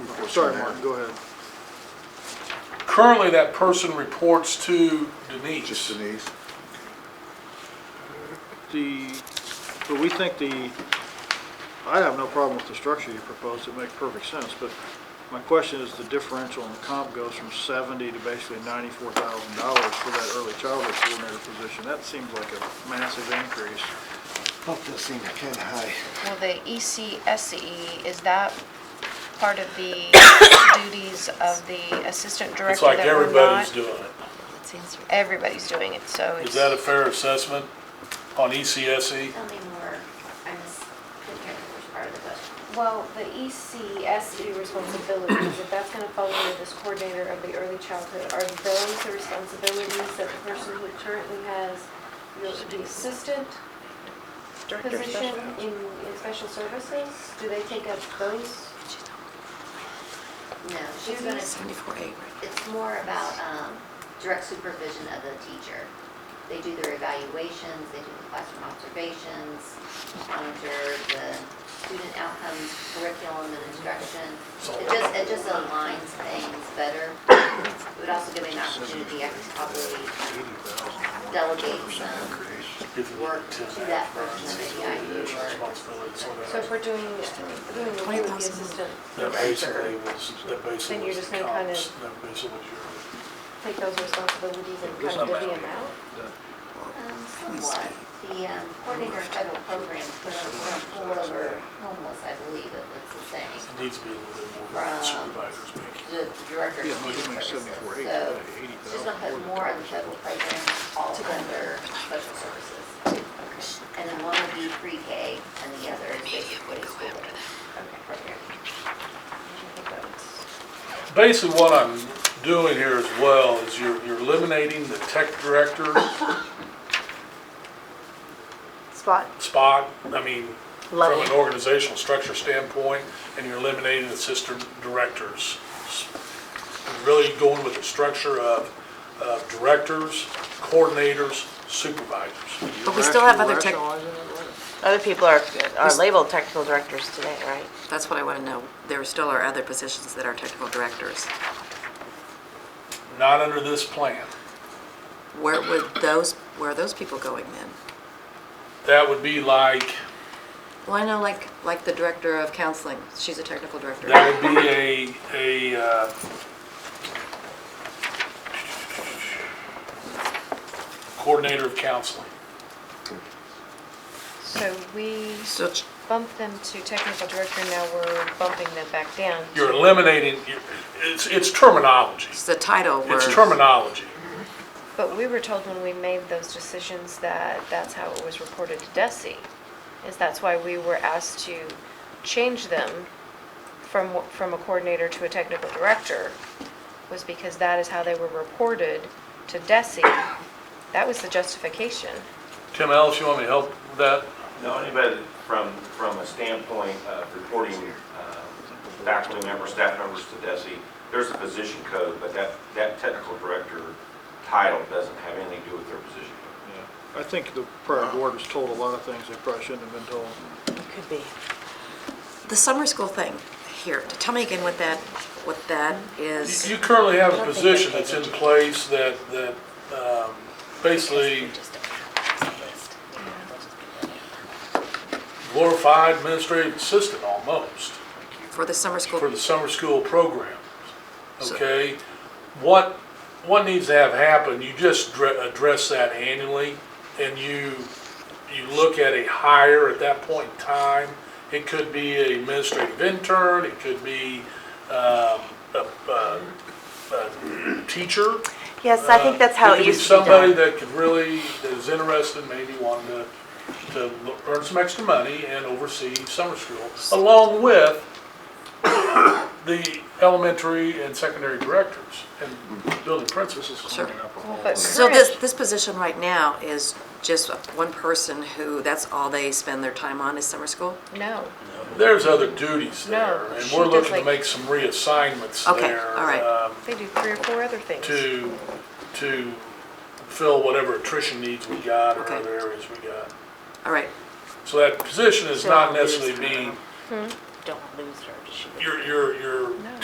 Sorry, Martin, go ahead. Currently, that person reports to Just Denise. Denise. The, but we think the, I have no problem with the structure you proposed, it makes perfect sense, but my question is the differential in the comp goes from seventy to basically ninety-four thousand dollars for that early childhood coordinator position. That seems like a massive increase. That does seem kinda high. Well, the E ECSE, E, is that part of the duties of the assistant It's director like that we're everybody's not? doing it. Everybody's doing it, so it's. Is that a fair assessment on E ECSE? Tell me more, I missed, couldn't hear the first part of the question. Well, the E ECSE E responsibilities, if that's going to fall under this coordinator of the early childhood, are those the responsibilities that the person who currently has the- the assistant position in, in special services? Do they take up those? No, she's gonna, it's more about um, direct supervision of the teacher. They do their evaluations, they do the classroom observations, monitor the student outcomes, curriculum and instruction. It just, it just aligns things better. It would also give me an opportunity, I could probably delegate some work to that person in the IU or. So if we're doing, doing the with the assistant That basically director, was, that basically Then was you're the just gonna kind comps. of- That basically was your. take those responsibilities and There's cut no the matter. amount? Um, Somewhat. The um, coordinator of federal programs put on a pool over homeless, I believe it was the same, It needs to be a little bit more than Right. supervisors making. the the director Yeah, of no, you student make services. 74, eight, So eighty she's gonna put thousand. more of the federal programs all under social services. And then one would be pre-K and the other is basically school program. Basically, what I'm doing here as well is you're, you're eliminating the tech director Spot. spot, I mean, from an Level. organizational structure standpoint, and you're eliminating the assistant directors. Really going with the structure of, of directors, coordinators, supervisors. But we still have Rational- other tech- rationalizing it, right? Other people are, are labeled technical directors today, right? That's what I want to know. There still are other positions that are technical directors. Not under this plan. Where would those, where are those people going then? That would be like, Well, I know like, like the director of counseling, she's a technical director. that would be a, a, uh, coordinator of counseling. So we So it's- bumped them to technical director, now we're bumping them back down. You're eliminating, you're- it's, it's terminology. it's the title where. It's terminology. But we were told when we made those decisions that that's how it was reported to DESI. Is that's why we were asked to change them from, wh- from a coordinator to a technical director, was because that is how they were reported to DESI. That was the justification. Tim Ellis, you want me to help with that? No, anybody from, from a standpoint of reporting um, faculty members, staff members to DESI, there's a position code, but that, that technical director title doesn't have anything to do with their position. Yeah. I think the prior board was told a lot of things they probably shouldn't have been told. Could be. The summer school thing, here, tell me again what that, what that is. You currently have a position that's in place that, that um, basically glorified administrative assistant almost For the summer for school, the summer school program, okay? What, what needs to have happen, you just dre- address that annually and you, you look at a hire at that point in time. It could be a administrative intern, it could be um, a, a, a teacher. Yes, I think that's how it could be used to be Somebody done. that could really, that is interested, maybe wanting to, to earn some extra money and oversee summer school, along with the elementary and secondary directors and building This is Sure. cleaning up a Well, whole. but so this, current- this position right now is just one person who, that's all they spend their time on is summer school? No, There's other duties No, there, and she we're does looking to like- make some reassignments Okay, there. all right. um, they do three or four other things. To, to fill whatever attrition needs we got or Okay. other areas we got. All right, So that position is Don't not lose necessarily her. being, Hmm. Don't lose her. She- you're, you're, you're